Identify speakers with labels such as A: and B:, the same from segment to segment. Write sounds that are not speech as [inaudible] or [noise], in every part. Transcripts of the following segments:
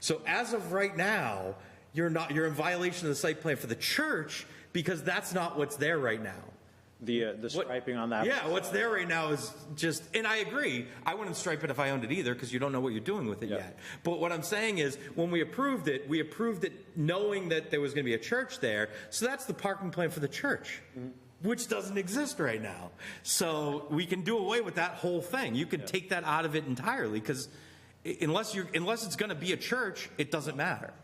A: So as of right now, you're not, you're in violation of the site plan for the church because that's not what's there right now.
B: The, uh, the
A: What-
B: striping on that.
A: Yeah, what's there right now is just, and I agree, I wouldn't stripe it if I owned it either, because you don't know what you're doing with it
B: Yeah.
A: yet. But what I'm saying is, when we approved it, we approved it knowing that there was going to be a church there, so that's the parking plan for the church,
B: Mm-hmm.
A: which doesn't exist right now. So we can do away with that whole thing. You can take that out of it entirely, because unless you're, unless it's going to be a church, it doesn't matter.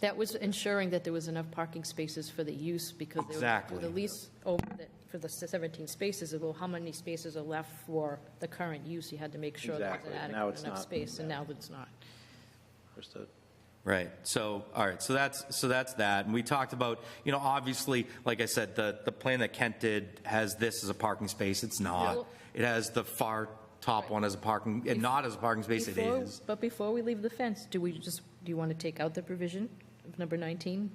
C: That was ensuring that there was enough parking spaces for the use because they were
A: Exactly.
C: with the lease over the, for the 17 spaces, well, how many spaces are left for the current use? You had to make sure that was
B: Exactly. Now it's
C: adequate enough
B: not.
C: space, and now it's not.
B: Understood.
A: Right. So, all right. So that's so that's that. And we talked about, you know, obviously, like I said, the the plan that Kent did has this as a parking space. It's not.
C: Yeah.
A: It has the far top one as a parking and not as a parking space. It
C: Before-
A: is.
C: But before we leave the fence, do we just, do you want to take out the provision of number 19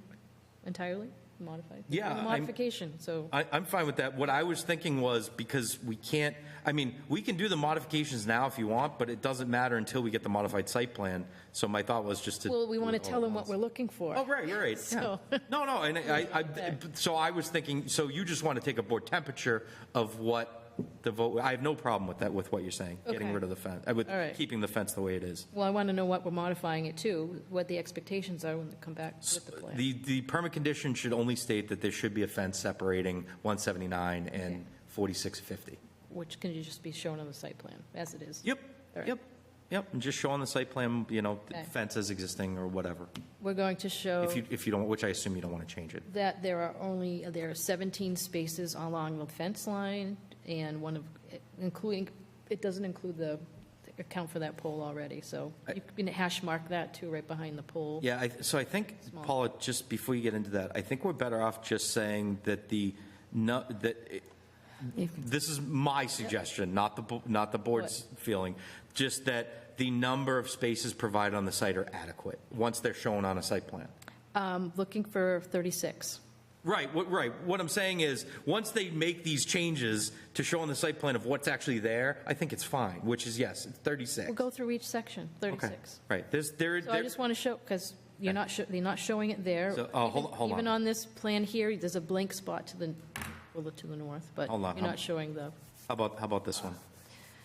C: entirely, modified?
A: Yeah, I'm-
C: Modification, so.
A: I, I'm fine with that. What I was thinking was because we can't. I mean, we can do the modifications now if you want, but it doesn't matter until we get the modified site plan. So my thought was just to.
C: Well, we want to tell them what we're looking
A: Oh,
C: for.
A: right, you're right. yeah.
C: So-
A: No, no, and I,
C: [laughs]
A: I, I, so I was thinking, so you just want to take a board temperature of what the vote, I have no problem with that, with what you're saying, getting
C: Okay.
A: rid of the fence, uh, with
C: All right.
A: keeping the fence the way it is.
C: Well, I want to know what we're modifying it to, what the expectations are when they come back with the plan.
A: The, the permit condition should only state that there should be a fence separating 179 and 4650.
C: Which can just be shown on the site plan, as it is.
A: Yep,
C: All right.
A: yep, yep, and just show on the site plan, you know, the
C: Okay. Oh.
A: fence is existing or whatever,
C: We're going to show
A: if you, if you don't, which I assume you don't want to change it.
C: that there are only, there are 17 spaces along the fence line, and one of, including, it doesn't include the, account for that pole already, so you can hash mark that too, right behind the pole.
A: Yeah, I, so I think, Paula, just before you get into that, I think we're better off just saying that the, no, that, it- this is my suggestion, not the, bo- not the board's feeling, just that the number of spaces provided on the site are adequate, once they're shown on a site plan.
C: Um, Looking for 36.
A: Right, what, right, what I'm saying is, once they make these changes to show on the site plan of what's actually there, I think it's fine, which is, yes, it's 36.
C: We'll go through each section,
A: Okay,
C: 36.
A: Right, there's, there,
C: So I
A: there,
C: just want to show, because you're not, sho- they're not showing it there.
A: So, oh, hold-
C: Even-
A: hold on.
C: Even on this plan here, there's a blank spot to the, well, to the north, but you're
A: Hold on,
C: not
A: I'm-
C: showing the,
A: How about, how about this one?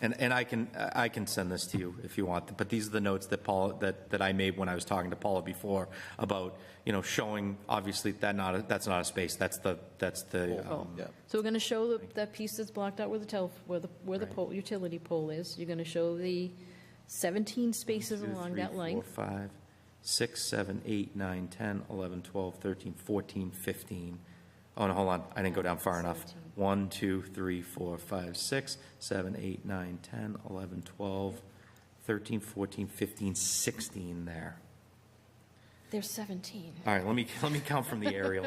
A: And, and I can, I can send this to you if you want, but these are the notes that Paul, that, that I made when I was talking to Paula before about, you know, showing, obviously, that not, a- that's not a space, that's the, that's the,
C: oh.
A: um,
C: So we're going to show the- that piece that's blocked out where the tel, where the, where the pole, utility pole is. You're going to show the 17 spaces
A: two,
C: along
A: three,
C: that
A: four,
C: length.
A: five, six, seven, eight, nine, 10, 11, 12, 13, 14, 15. Oh, no, hold on, I didn't go down far enough. 1, 2, 3, 4, 5, 6, 7, 8, 9, 10, 11, 12, 13, 14, 15, 16 there.
C: There's 17.
A: All right, let me, let me count from the
C: [laughs]
A: aerial.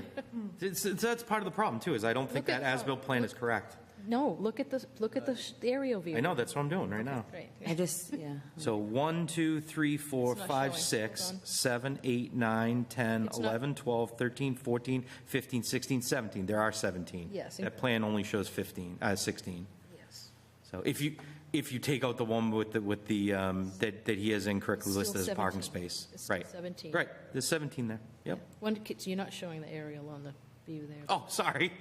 A: It's- it's- That's part of the problem, too, is I don't think
C: Look at-
A: that as-built plan is correct.
C: No, look at the, look at the sh- the aerial view.
A: Uh, I know, that's what I'm doing right now.
C: Right.
D: I just, yeah.
A: So 1, 2, 3, 4,
C: It's not
A: 5,
C: showing.
A: 6,
C: Hold on.
A: 7, 8, 9, 10,
C: It's not-
A: 11, 12, 13, 14, 15, 16, 17. There are 17.
C: Yes.
A: That plan only shows 15, uh, 16.
C: Yes.
A: So if you, if you take out the one with the, with the, um, that, that he has incorrectly
C: It's still
A: listed as a parking
C: 17.
A: space.
C: It's still
A: Right.
C: 17.
A: Right, there's 17 there, yep.
C: One, so you're not showing the aerial on the view there.
A: Oh, sorry.
C: [laughs]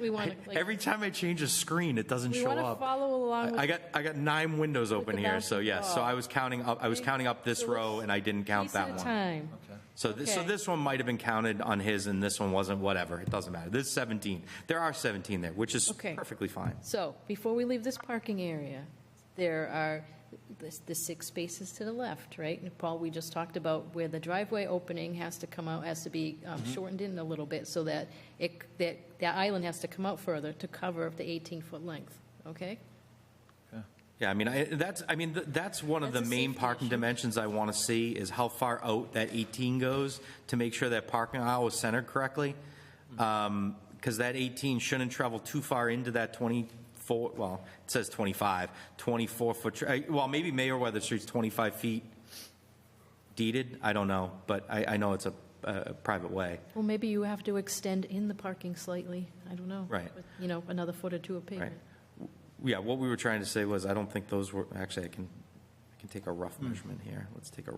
C: We want
A: [laughs]
C: to, like,
A: Every time I change a screen, it doesn't
C: we
A: show
C: want to
A: up.
C: follow along with
A: I I got, I got nine windows open
C: the
A: here, so
C: bouncing
A: yes, so
C: ball.
A: I was counting up, I was counting up this
C: So let's-
A: row and I didn't count
C: piece at
A: that
C: a
A: one.
C: time.
A: So this, so
C: Okay.
A: this one might have been counted on his and this one wasn't, whatever, it doesn't matter. This is 17. There are 17 there, which is
C: Okay.
A: perfectly fine.
C: So, before we leave this parking area, there are the- the six spaces to the left, right? And Paul, we just talked about where the driveway opening has to come out, has to be um,
A: Mm-hmm.
C: shortened in a little bit so that it, that, that island has to come out further to cover the 18-foot length, okay?
A: Yeah, I mean, I, that's, I mean, th- that's one of the
C: That's a
A: main
C: safety
A: parking
C: issue.
A: dimensions I want to see is how far out that 18 goes to make sure that parking aisle is centered correctly. Because that 18 shouldn't travel too far into that 24, well, it says 25, 24-foot, well, maybe Mayor Weather Street's 25 feet deeded, I don't know, but I, I know it's a, a private way.
C: Well, maybe you have to extend in the parking slightly, I don't know.
A: Right.
C: with, You know, another foot or two of
A: Right.
C: pavement. Hmm.
A: Yeah, what we were trying to say was, I don't think those were, actually, I can, I can take a rough measurement here. Let's take a